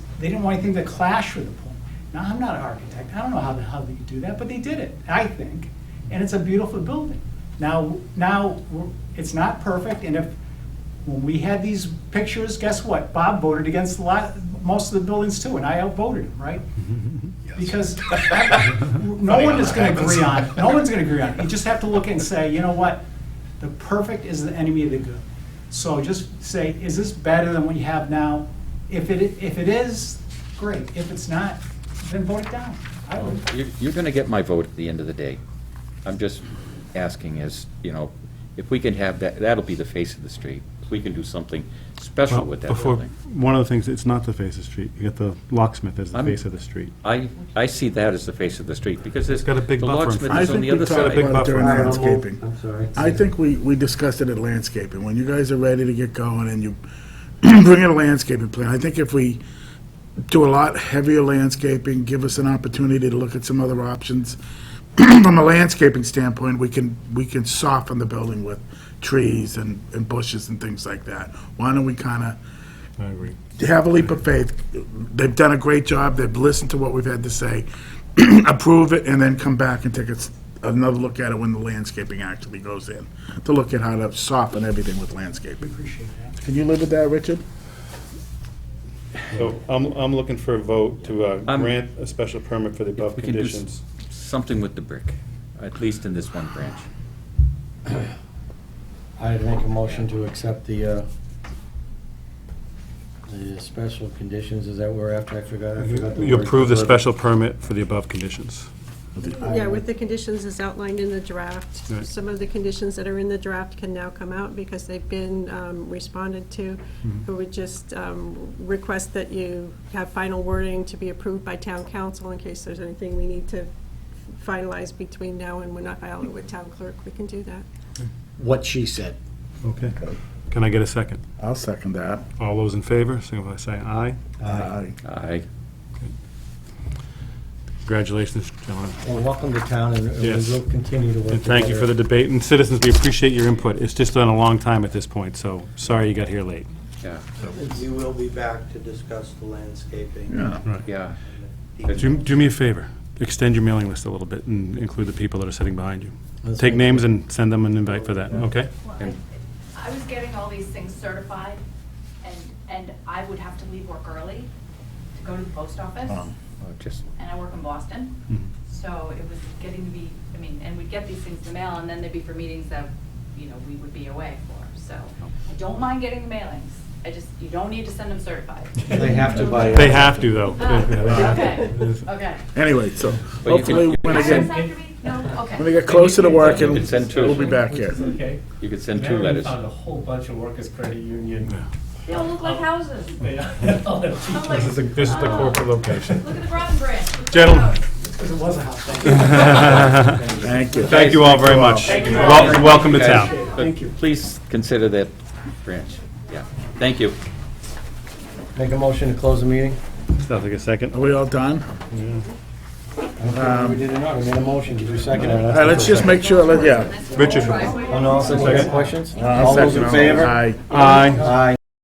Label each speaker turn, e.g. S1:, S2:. S1: They didn't want anything to clash with the pool. Now, I'm not an architect, I don't know how the hell they could do that, but they did it, I think, and it's a beautiful building. Now, now, we're- it's not perfect, and if, when we had these pictures, guess what? Bob voted against a lot, most of the buildings too, and I outvoted him, right? Because no one is gonna agree on, it. no one's gonna agree on it. You just have to look and say, you know what? The perfect is the enemy of the good. So just say, is this better than what you have now? If it, if it is, great. If it's not, then vote it down. I would.
S2: You're, you're gonna get my vote at the end of the day. I'm just asking is, you know, if we can have that, that'll be the face of the street. If we can do something special
S3: Well,
S2: with that
S3: before-
S2: building.
S3: One of the things, it's not the face of the street. You get the locksmith as the
S2: I'm-
S3: face of the street.
S2: I, I see that as the face of the street, because there's.
S3: got a big buffer in
S2: The
S3: front.
S2: locksmith is
S3: I
S2: on
S3: think
S2: the
S3: we
S2: other
S3: talked
S2: side.
S3: about
S4: But during
S5: I don't know.
S4: landscaping.
S5: I'm sorry.
S4: I think we, we discussed it at landscaping. When you guys are ready to get going and you bring in a landscaping plan, I think if we do a lot heavier landscaping, give us an opportunity to look at some other options. From a landscaping standpoint, we can, we can soften the building with trees and, and bushes and things like that. Why don't we kind of
S3: I agree.
S4: have a leap of faith. They've done a great job. They've listened to what we've had to say. Approve it and then come back and take a s- another look at it when the landscaping actually goes in, to look at how to soften everything with landscaping.
S1: Appreciate that.
S4: Can you live with that, Richard?
S6: So I'm, I'm looking for a vote to uh,
S2: I'm-
S6: grant a special permit for the above
S2: We can do s-
S6: conditions.
S2: something with the brick, at least in this one branch.
S5: I'd make a motion to accept the, uh, the special conditions, is that we're after, I forgot, I forgot the
S3: You
S5: word.
S3: approve the special permit for the above conditions.
S7: Yeah, with the conditions as outlined in the draft.
S3: Right.
S7: Some of the conditions that are in the draft can now come out because they've been um, responded to. We would just um, request that you have final wording to be approved by town council in case there's anything we need to finalize between now and when I file it with town clerk. We can do that.
S5: What she said.
S3: Okay. Can I get a second?
S4: I'll second that.
S3: All those in favor, signify by saying aye.
S4: Aye.
S2: I,
S3: Congratulations, gentlemen.
S5: Well, welcome to town, and we
S3: Yes.
S5: will continue to work
S3: And thank you for the debate. And citizens, we appreciate your input. It's just been a long time at this point, so sorry you got here late.
S2: yeah,
S8: We will be back to discuss the landscaping.
S2: yeah.
S3: Do, do me a favor, extend your mailing list a little bit and include the people that are sitting behind you. Take names and send them an invite for that, okay?
S9: Well, I- I was getting all these things certified, and, and I would have to leave work early to go to the post office,
S4: um,
S9: and
S2: Oh, Just,
S9: I work
S5: Mm-hmm.
S9: in
S3: Mhm.
S9: Boston. So it was getting to be, I mean, and we'd get these things in the mail, and then they'd be for meetings that, you know, we would be away for. So I don't mind getting the mailings, I just, you don't need to send them certified.
S5: They have to buy.
S3: They have to, though.
S9: Ah, Okay, okay.
S4: Anyway, so
S2: But you can-
S4: hopefully, when I
S9: Does
S4: get,
S9: that have to be? No, okay.
S4: when I get closer to work, it'll-
S2: You can send two.
S4: we'll be back here.
S10: Okay.
S2: you could send two
S10: American
S2: letters.
S10: found a whole bunch of workers' credit union.
S9: They all look like houses.
S10: They all have
S9: I'm
S10: teachers.
S9: like,
S3: This is the corporate location.
S9: Look at the Groton Branch. look at the
S3: Gentlemen.
S9: house.
S1: Because it was a hot thing.
S4: Thank you.
S3: Thank you all very much. Wel- Welcome to town.
S2: But Please consider that branch, yeah. Thank you.
S5: Make a motion to close the meeting?
S3: Sounds like a second.
S4: Are we all done?
S5: I don't think We did or not, we made a motion, did you second it?
S4: Um, All right, let's just make sure, let- yeah. Uh,
S3: Richard?
S5: Oh, no, second, questions?
S4: I'll
S5: All those in
S4: Uh, second.
S5: favor?
S4: Aye.
S3: Aye.
S5: Aye.